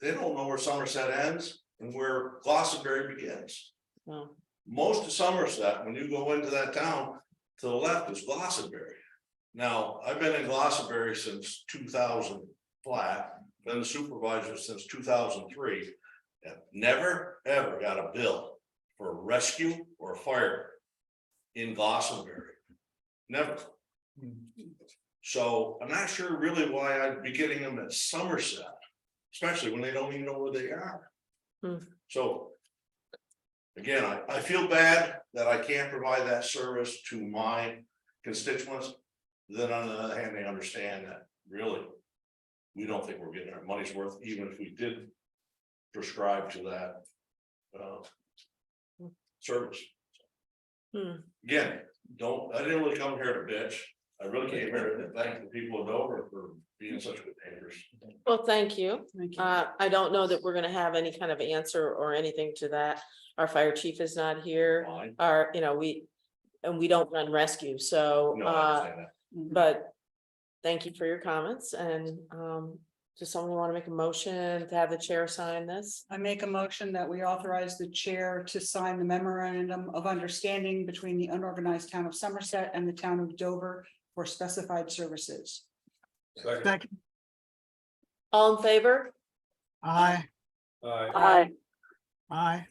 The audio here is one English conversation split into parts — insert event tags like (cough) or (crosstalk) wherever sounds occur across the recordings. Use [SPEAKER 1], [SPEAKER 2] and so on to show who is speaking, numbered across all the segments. [SPEAKER 1] they don't know where Somerset ends and where Glossary begins.
[SPEAKER 2] No,
[SPEAKER 1] Most of Somerset, when you go into that town, to the left is Glossary. Now, I've been in Glossary since two thousand flat, been a supervisor since two thousand three. And never, ever got a bill for a rescue or a fire in Glossary. Never. So I'm not sure really why I'd be getting them at Somerset, especially when they don't even know where they are.
[SPEAKER 2] Hmm.
[SPEAKER 1] So. Again, I, I feel bad that I can't provide that service to my constituents. Then on the other hand, they understand that really. We don't think we're getting our money's worth, even if we did prescribe to that. uh, Service.
[SPEAKER 2] Hmm.
[SPEAKER 1] Again, don't, I didn't really come here to bitch. I really came here to thank the people of Dover for being such good neighbors.
[SPEAKER 2] well, thank you.
[SPEAKER 3] Thank you.
[SPEAKER 2] Uh, I don't know that we're gonna have any kind of answer or anything to that. Our fire chief is not here,
[SPEAKER 1] Fine.
[SPEAKER 2] our, you know, we, and we don't run rescue, so,
[SPEAKER 1] No, I
[SPEAKER 2] uh,
[SPEAKER 1] understand that.
[SPEAKER 3] Mm.
[SPEAKER 2] but thank you for your comments and, um, does someone want to make a motion to have the chair sign this?
[SPEAKER 3] I make a motion that we authorize the chair to sign the memorandum of understanding between the unorganized town of Somerset and the town of Dover for specified services.
[SPEAKER 4] Second,
[SPEAKER 2] All in favor?
[SPEAKER 4] aye,
[SPEAKER 2] Aye.
[SPEAKER 4] aye,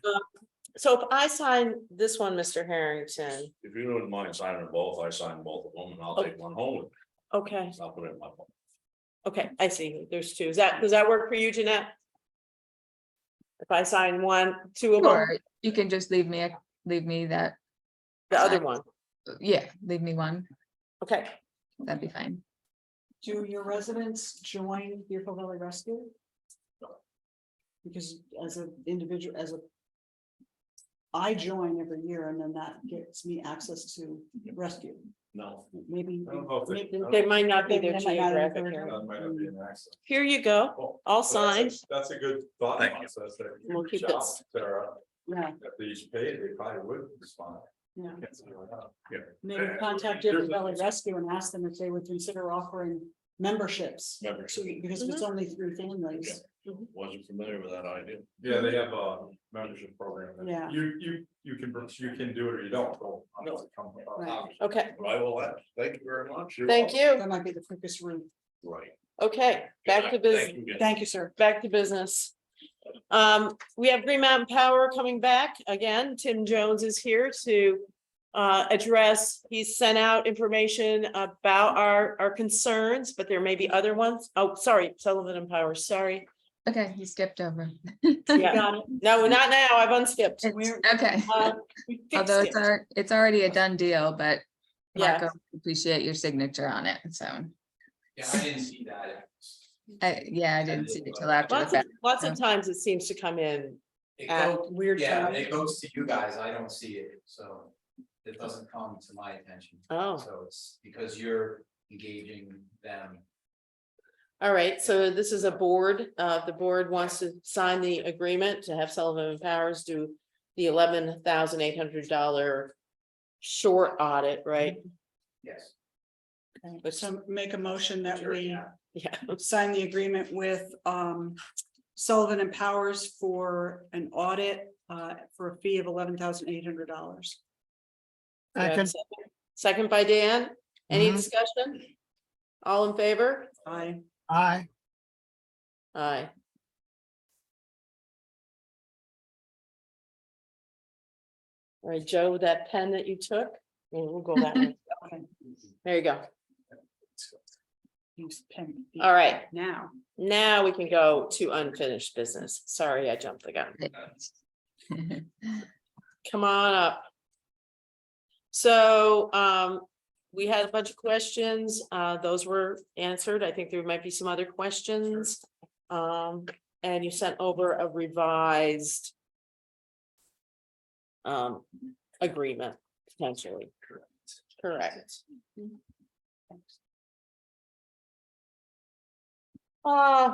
[SPEAKER 2] So if I sign this one, Mr. Harrington,
[SPEAKER 1] If you wouldn't mind signing them both, I sign both of them and I'll take one home with
[SPEAKER 2] okay,
[SPEAKER 1] me. I'll put it in my. phone.
[SPEAKER 2] okay, I see, there's two, Is that, does that work for you, Jeanette? If I sign one, two of them,
[SPEAKER 5] Or you can just leave me, a- leave me that,
[SPEAKER 2] the other one,
[SPEAKER 5] yeah, leave me one,
[SPEAKER 2] okay,
[SPEAKER 5] that'd be fine.
[SPEAKER 3] Do your residents join Deerfield Valley Rescue? Because as an individual, as a I join every year and then that gets me access to rescue,
[SPEAKER 1] No.
[SPEAKER 3] maybe.
[SPEAKER 6] I don't know if they-
[SPEAKER 3] maybe-
[SPEAKER 6] I don't-
[SPEAKER 2] they might not be
[SPEAKER 3] They
[SPEAKER 2] their
[SPEAKER 3] might not have
[SPEAKER 2] geographic
[SPEAKER 3] been
[SPEAKER 2] area.
[SPEAKER 6] That might not be an accident.
[SPEAKER 2] Here you go,
[SPEAKER 6] Well,
[SPEAKER 2] all
[SPEAKER 6] so that's a-
[SPEAKER 2] signed,
[SPEAKER 6] That's a good thought
[SPEAKER 1] Thank you.
[SPEAKER 6] process. that you
[SPEAKER 2] We'll
[SPEAKER 6] could
[SPEAKER 2] keep
[SPEAKER 6] reach out,
[SPEAKER 2] this.
[SPEAKER 6] Sarah,
[SPEAKER 3] Yeah,
[SPEAKER 6] if they each paid, they probably would respond.
[SPEAKER 3] yeah.
[SPEAKER 6] Can't say why not.
[SPEAKER 3] Maybe contact Deerfield Valley Rescue and ask them if they would consider offering memberships.
[SPEAKER 1] Members,
[SPEAKER 3] So, because if
[SPEAKER 2] Mm-hmm.
[SPEAKER 3] it's only three families,
[SPEAKER 1] wasn't familiar with that idea.
[SPEAKER 6] Yeah, they have a membership program. that
[SPEAKER 3] Yeah.
[SPEAKER 6] You, you, you can, you can do it or you don't. so I'm
[SPEAKER 1] No.
[SPEAKER 6] just coming up.
[SPEAKER 3] Right.
[SPEAKER 2] okay,
[SPEAKER 1] But I will, ask. thank you very much. You're
[SPEAKER 2] thank you,
[SPEAKER 3] that might be the quickest route.
[SPEAKER 1] Right.
[SPEAKER 2] okay, back to
[SPEAKER 1] Thank
[SPEAKER 2] business.
[SPEAKER 1] you again.
[SPEAKER 3] Thank you, sir.
[SPEAKER 2] back to business. Um, we have Green Mountain Power coming back again. Tim Jones is here to uh, address, he sent out information about our, our concerns, but there may be other ones. Oh, sorry, Sullivan and Power, sorry.
[SPEAKER 5] Okay, you skipped over.
[SPEAKER 2] Yeah.
[SPEAKER 3] Got it.
[SPEAKER 2] No, not now. I've unskipped.
[SPEAKER 5] It's- Okay,
[SPEAKER 2] Uh, we fixed
[SPEAKER 5] although it's,
[SPEAKER 2] it.
[SPEAKER 5] al- it's already a done deal, but
[SPEAKER 2] Yeah.
[SPEAKER 5] Marco, appreciate your signature on it, so,
[SPEAKER 7] Yeah, I didn't see that.
[SPEAKER 5] I, yeah, I didn't see it till after the
[SPEAKER 2] Lots of,
[SPEAKER 5] fact.
[SPEAKER 2] lots of times it seems to come in.
[SPEAKER 7] It
[SPEAKER 2] at
[SPEAKER 7] goes,
[SPEAKER 2] weird
[SPEAKER 7] yeah,
[SPEAKER 2] times.
[SPEAKER 7] it goes to you guys, I don't see it, so it doesn't come to my attention.
[SPEAKER 2] Oh,
[SPEAKER 7] So it's because you're engaging them.
[SPEAKER 2] all right. So this is a board, uh, the board wants to sign the agreement to have Sullivan and Powers do the eleven thousand eight hundred dollar short audit, right?
[SPEAKER 4] Mhm.
[SPEAKER 7] Yes.
[SPEAKER 2] But some,
[SPEAKER 3] So make a motion that we
[SPEAKER 2] yeah,
[SPEAKER 3] sign the agreement with um Sullivan and Powers for an audit uh for a fee of eleven thousand eight hundred dollars.
[SPEAKER 4] second,
[SPEAKER 2] second by Dan, any
[SPEAKER 4] Mhm.
[SPEAKER 2] discussion? All in favor?
[SPEAKER 3] I,
[SPEAKER 4] aye,
[SPEAKER 2] Aye. All right, Joe, that pen that you took, we'll we'll go
[SPEAKER 4] (laughs)
[SPEAKER 2] that way.
[SPEAKER 3] okay,
[SPEAKER 2] There you go.
[SPEAKER 3] use pen.
[SPEAKER 2] All right,
[SPEAKER 3] Now,
[SPEAKER 2] now we can go to unfinished business. Sorry, I jumped the gun.
[SPEAKER 5] (laughs)
[SPEAKER 2] Come on up. So um, we had a bunch of questions. Uh, those were answered. I think there might be some other questions. Um, and you sent over a revised um, agreement potentially. Correct. Uh,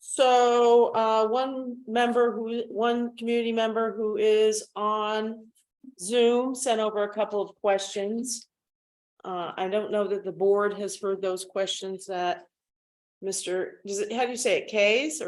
[SPEAKER 2] so, uh, one member who, one community member who is on Zoom sent over a couple of questions. Uh, I don't know that the board has heard those questions that Mr., does it, how do you say it, Kays or